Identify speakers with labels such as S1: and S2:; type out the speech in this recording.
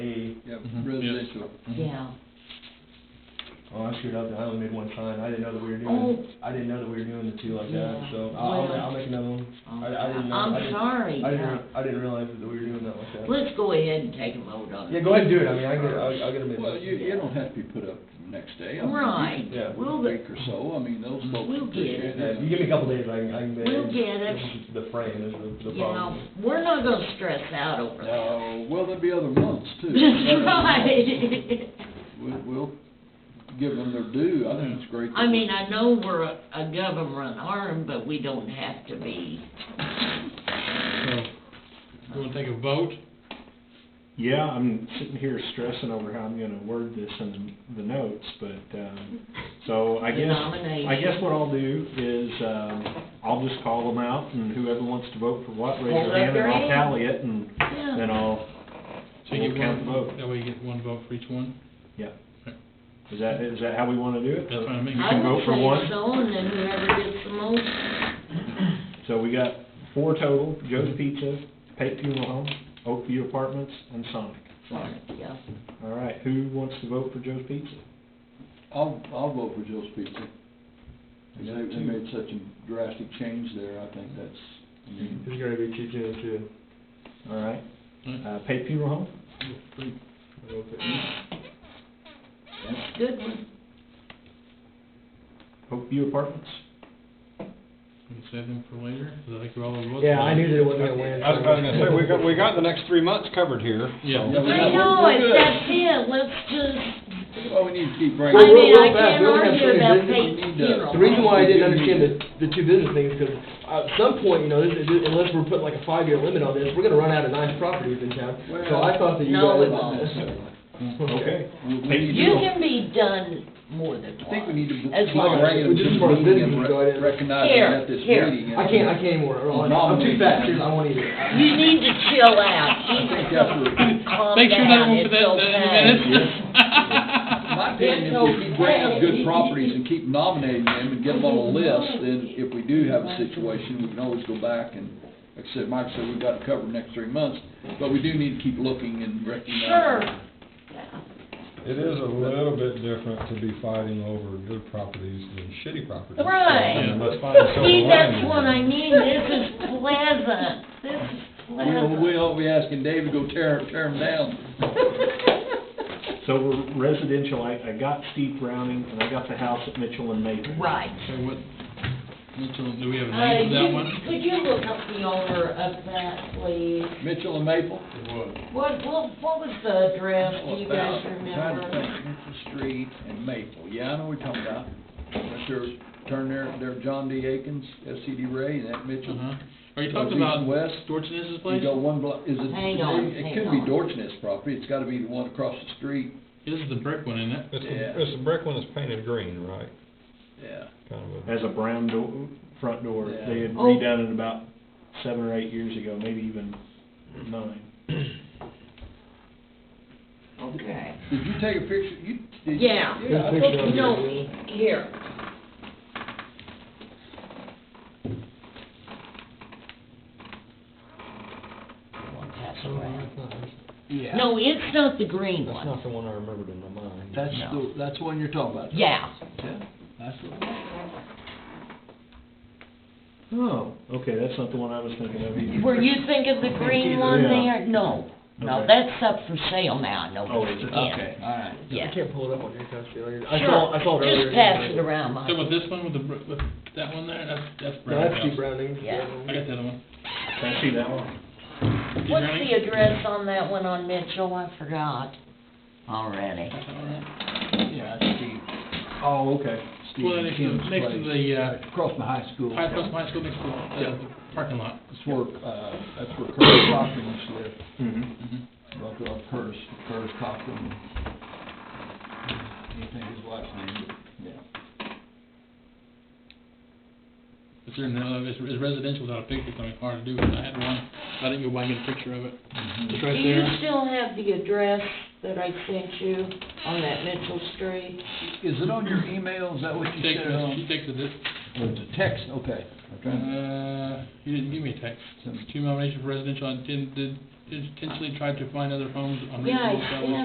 S1: into it.
S2: Yeah.
S3: Well, Oh, I screwed up, I only made one sign, I didn't know that we were
S2: Oh.
S3: doing, I didn't know that we were doing the two like that,
S2: Yeah.
S3: so I'll, I'll ma-
S2: Well.
S3: I'll make another one. I, I didn't know. I
S2: I'm
S3: didn't-
S2: sorry.
S3: I didn't, re- I didn't realize that we were doing that like that.
S2: Let's go ahead and take a vote on it.
S3: Yeah, go ahead and do it, I mean, I can, I'll, I'll get them in.
S1: Well, you, you don't have to be put up the next day. I mean, you
S2: Right.
S1: can-
S3: Yeah.
S1: A
S2: We'll
S1: week
S2: get, Mm-hmm.
S1: or so, I mean, those folks
S2: We'll get
S1: appreciate
S2: it.
S3: Yeah, if you
S1: it.
S3: give me a couple days, I can, I can.
S2: We'll get it.
S3: This is The frame is the, the
S2: you
S3: problem.
S2: know, we're not gonna stress out over that.
S1: Now, Uh, well, there'll be other months too.
S2: That's right.
S1: We'll, we'll give them their due, I think it's great. that
S2: I
S1: we-
S2: mean, I know we're a a government arm, but we don't have to be.
S4: You wanna take a vote?
S5: Yeah, I'm sitting here stressing over how I'm gonna word this in the notes, but, um, so I guess, I
S2: Denomination.
S5: guess what I'll do is, um, I'll just call them out and whoever wants to vote for what, raise
S2: Hold up
S5: their hand
S2: their
S5: and I'll
S2: hand.
S5: tally it and
S2: Yeah.
S5: then I'll,
S4: So you
S5: we'll
S4: get
S5: count
S4: one
S5: the vote.
S4: That way you get one vote for each one?
S5: Yeah. Is that, is that how we wanna do it?
S4: That's what I mean.
S5: You
S2: I
S5: can
S2: would
S5: vote for
S2: say
S5: one,
S2: so, and then whoever gets the most,
S5: so we got four total, Joe's Pizza, Pate Funeral Home, Oakview Apartments, and Sonic.
S1: Fine.
S2: yeah.
S5: All right, who wants to vote for Joe's Pizza?
S1: I'll, I'll vote for Joe's Pizza. They,
S3: You got
S1: they
S3: two.
S1: made such a drastic change there, I think that's, I mean,
S3: It's gonna be cheap, you know, too.
S5: All right,
S4: Alright.
S5: uh, Pate Funeral Home?
S3: I don't think-
S2: That's a good one.
S5: Oakview Apartments?
S4: We can save them for later, so I could all vote.
S3: Yeah, I knew that it wasn't gonna win.
S6: I was about to say, we got, we got the next three months covered here.
S1: Yeah.
S2: I
S4: Yeah.
S2: know, it's, that's it, let's just,
S1: well, we need to keep bringing.
S2: I
S3: Well,
S2: mean,
S3: real
S2: I
S3: fast,
S2: can't
S3: we only have
S2: argue
S3: three
S2: about
S3: business-
S2: Peyton
S1: we need to-
S2: funeral.
S3: The reason why I didn't understand the, the two business things, because at some point, you know, this is- unless we're putting like a five-year limit on this, we're gonna run out of nice properties in town. So I thought that you
S2: No,
S3: guys.
S2: we won't.
S5: Okay.
S1: We- we need to-
S2: You can be done more than
S1: I
S2: once.
S1: think we need to.
S2: As long
S1: bring it
S2: as,
S3: We just
S1: to the
S3: want
S1: meeting
S3: business to
S1: and
S3: go
S1: re-
S3: ahead and-
S1: Recognize it
S2: Here,
S1: at this
S2: here.
S1: meeting.
S3: I can't, I can't anymore, I'm I'm too fat, dude, I won't eat it. I-
S2: you need to chill out,
S1: think that's
S2: keep yourself,
S1: what-
S2: calm
S4: Make sure that
S2: down,
S4: one for
S2: it's
S4: that, that
S2: okay.
S4: minutes.
S1: My opinion, if we keep bringing up good properties and keep nominating them and get them on a list, then if we do have a situation, we can always go back and, like I said, Mike said, we've got it covered the next three months, but we do need to keep looking and recognizing.
S2: Sure.
S6: It is a little bit different to be fighting over good properties than shitty properties.
S2: Right.
S6: So, Let's find a silver
S2: See, that's
S6: lining.
S2: what I mean, this is pleasant, this is
S1: We,
S2: pleasant.
S1: we ought to be asking Dave to go tear, tear them down.
S5: So we're residential, I, I got Steve Browning, and I got the house at Mitchell and Maple.
S2: Right.
S4: So what, Mitchell, do we have a
S2: Uh,
S4: name for that
S2: you-
S4: one?
S2: Could you look up the owner of that, please?
S1: Mitchell and Maple?
S2: What, what, what was the address, do you guys
S1: About- I'm trying to
S2: remember?
S1: think, Mitchell Street and Maple, yeah, I know what you're talking about. Right there, turn there, there John D. Akins, SCD Ray, and that Mitchell.
S4: Uh-huh. Are you
S1: Goes
S4: talking
S1: east
S4: about
S1: and west.
S4: Dorchenez's
S1: You
S4: place?
S1: go one block, is it?
S2: Hang on,
S1: It
S2: hang
S1: could be
S2: on.
S1: Dorchness property, it's gotta be the one across the street,
S4: This is the brick one, isn't it?
S6: It's
S1: Yeah.
S6: the, it's the brick one that's painted green, right?
S1: yeah.
S6: Kind of a.
S5: Has a brown door, front door,
S1: Yeah.
S5: they had
S2: Oh.
S5: redone it about seven or eight years ago, maybe even nine.
S2: Okay.
S1: Did you take a picture, you? did-
S2: Yeah.
S1: Yeah, I
S3: Good
S1: thought
S3: picture
S1: you
S3: of
S1: did.
S3: it.
S2: No, here.
S3: Yeah.
S2: No, it's not the green
S6: That's
S2: one.
S6: not the one I remembered in my mind.
S1: That's
S2: No.
S1: the, that's the one you're talking about?
S2: Yeah.
S1: Yeah, that's the
S5: Oh, okay, that's not the one I was thinking of either.
S2: Were you thinking the green one
S5: Yeah.
S2: there? No. No,
S5: Okay.
S2: that's up for sale now, I know.
S5: Oh, is it?
S2: Yeah.
S1: Okay, all right.
S2: Yeah.
S3: I can't pull it up on your computer. I saw,
S2: Sure,
S3: I saw it earlier.
S2: just pass it around,
S4: So with
S2: Michael.
S4: this one, with the, brick- with that one there, that's, that's
S3: No,
S4: Brown's
S3: that's Steve
S4: house.
S3: Browning.
S2: Yeah.
S4: I got the other one.
S5: Can I see that one?
S4: Steve
S2: What's
S4: Browning?
S2: the address on that one on Mitchell? I forgot already.
S4: That's all right.
S1: Yeah, that's Steve,
S5: Oh, okay.
S1: Steve
S4: Well, next to-
S1: Kim's
S4: next to
S1: place.
S4: the, uh,
S1: Across from high school.
S4: High Cross High School next to the uh, parking lot.
S1: That's where, uh, that's where Curtis Cochran used to live,
S5: Mm-hmm.
S1: Right there on Curtis, Curtis Cochran. Can't think of his last name, but, yeah.
S4: It's in, uh, it's it's residential without a picture, it's gonna be hard to do, but I had one, I didn't go by and get a picture of it. It's
S2: Do
S4: right
S2: you
S4: there.
S2: still have the address that I sent you on that Mitchell Street?
S1: Is it on your email, is that what you
S4: She
S1: said
S4: texted, she
S1: on?
S4: texted it,
S1: Or is it text, okay. I'm trying to-
S4: uh, you didn't give me a text. Two nominations for residential, I intended, intentionally tried to find other homes on
S2: Yeah, I-
S4: reasonable salaries.
S2: yeah,